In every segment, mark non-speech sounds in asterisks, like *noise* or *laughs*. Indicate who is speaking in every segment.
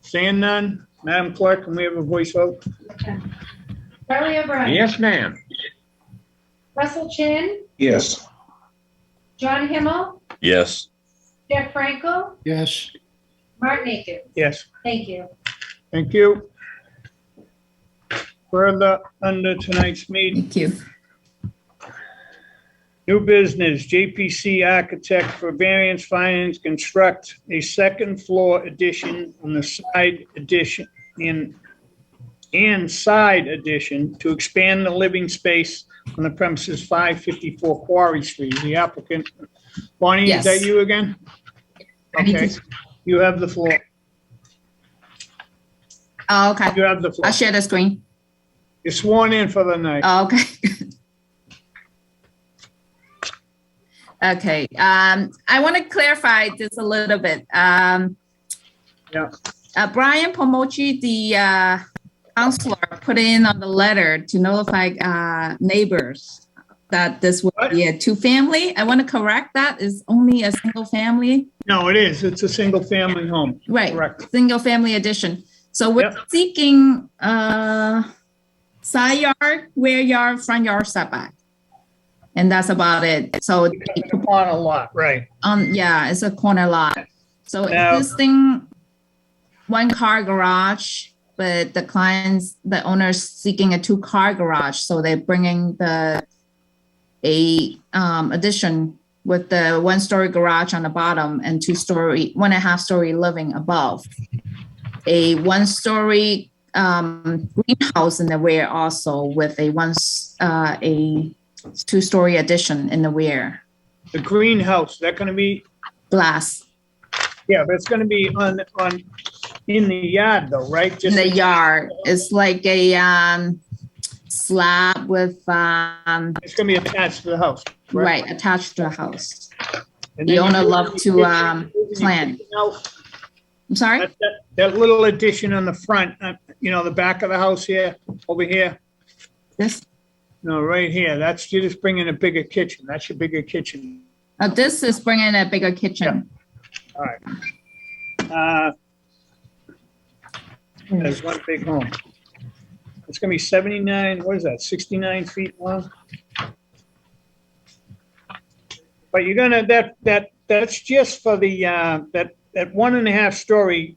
Speaker 1: Seeing none, Madam Clerk, can we have a voice vote?
Speaker 2: Charlie O'Brien.
Speaker 3: Yes, ma'am.
Speaker 2: Russell Chin,
Speaker 4: Yes.
Speaker 2: John Himmel,
Speaker 5: yes,
Speaker 2: Jeff Frankel,
Speaker 4: Yes.
Speaker 2: Martin Akins.
Speaker 1: Yes.
Speaker 2: Thank you.
Speaker 1: Thank you. Further under tonight's meeting,
Speaker 6: Thank you.
Speaker 1: new business, JPC Architect for Variance Finance construct a second floor addition on the side addition in and side addition to expand the living space on the premises 554 Quarry Street. The applicant, Bonnie, is
Speaker 6: Yes.
Speaker 1: that you again? Okay, you have the floor.
Speaker 6: Oh, okay.
Speaker 1: You have the floor.
Speaker 6: I'll share the screen.
Speaker 1: You're sworn in for the night.
Speaker 6: Oh, okay. *laughs* okay. Um, I want to clarify this a little bit. Um,
Speaker 1: Yeah.
Speaker 6: Uh, Brian Pomochi, the uh, counselor, put in on the letter to notify uh, neighbors that this would be a two family. I want to correct that is only a single family.
Speaker 1: No, it is. It's a single-family home.
Speaker 6: Right.
Speaker 1: Correct.
Speaker 6: single family addition. So we're
Speaker 1: Yep.
Speaker 6: seeking uh side yard, rear yard, front yard setback. And that's about it. So
Speaker 1: On a lot, right.
Speaker 6: um yeah, it's a corner lot. So
Speaker 1: Now-
Speaker 6: existing one car garage, but the clients, the owners seeking a two car garage, so they're bringing the a um addition with the one story garage on the bottom and two story, one and a half story living above. A one story um greenhouse in the rear also with a once uh a two story addition in the rear
Speaker 1: The greenhouse, that gonna be,
Speaker 6: glass.
Speaker 1: yeah, but it's gonna be on, on, in the yard though, right?
Speaker 6: in
Speaker 1: Just
Speaker 6: the yard. It's like a um slab with um
Speaker 1: It's gonna be attached to the house.
Speaker 6: right attached to a house.
Speaker 1: And
Speaker 6: The
Speaker 1: then
Speaker 6: owner
Speaker 1: you-
Speaker 6: love to, um, plan.
Speaker 1: That-
Speaker 6: I'm sorry.
Speaker 1: That that little addition on the front, uh, you know, the back of the house here, over here,
Speaker 6: This
Speaker 1: no, right here, that's, you're just bringing a bigger kitchen. That's your bigger kitchen.
Speaker 6: uh, this is bringing a bigger kitchen.
Speaker 1: Uh, There's one big home. It's gonna be seventy-nine, what is that, sixty-nine feet long? But you're gonna, that, that, that's just for the, uh, that, that one and a half story.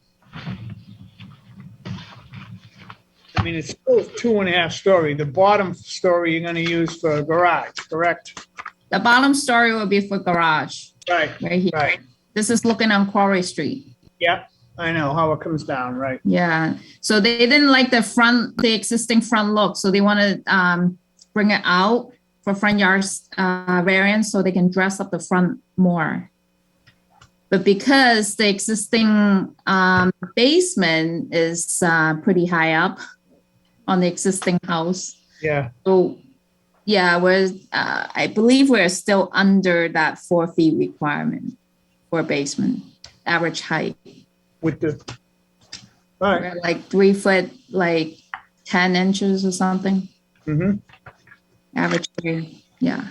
Speaker 1: I mean, it's still two and a half story. The bottom story you're gonna use for a garage, correct?
Speaker 6: The bottom story will be for garage
Speaker 1: Right,
Speaker 6: right here.
Speaker 1: right.
Speaker 6: This is looking on Quarry Street.
Speaker 1: Yep, I know how it comes down, right?
Speaker 6: Yeah. So they didn't like the front, the existing front look. So they want to um bring it out for front yards uh, variance so they can dress up the front more. But because the existing um, basement is uh, pretty high up on the existing house,
Speaker 1: Yeah,
Speaker 6: so yeah, we're uh, I believe we're still under that four feet requirement for basement average height.
Speaker 1: with the, all right.
Speaker 6: We're like three foot, like ten inches or something,
Speaker 1: Mm-hmm.
Speaker 6: average tree. Yeah,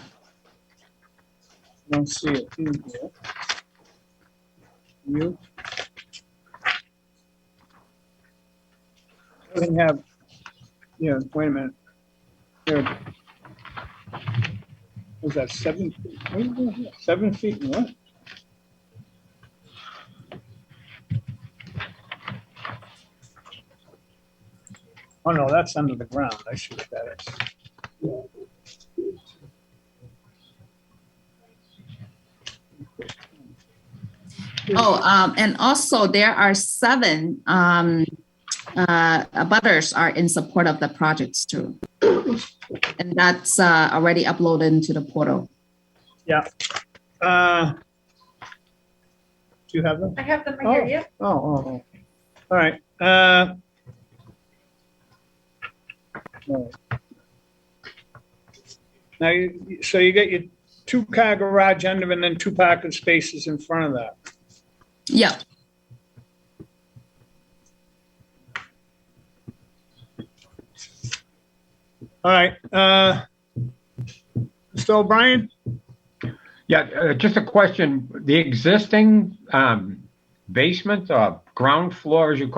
Speaker 1: Don't see it in here. You? Doesn't have, yeah, wait a minute. There. Was that seven? feet? Wait a minute, Seven feet and what? Oh, no, that's under the ground. I should have had it.
Speaker 6: Oh, um, and also there are seven, um, uh, abutters are in support of the projects too. And that's, uh, already uploaded into the portal.
Speaker 1: Uh, Do you have them?
Speaker 2: I have them right here. Yep.
Speaker 1: Oh, oh, oh. All right, uh. all right. Now, you- so you got your two-car garage under and then two parking spaces in front of that.
Speaker 6: Yep.
Speaker 1: All right, uh. Mr. O'Brien,
Speaker 3: Yeah, uh, just a question. The existing um, basement or uh, ground floor, as you call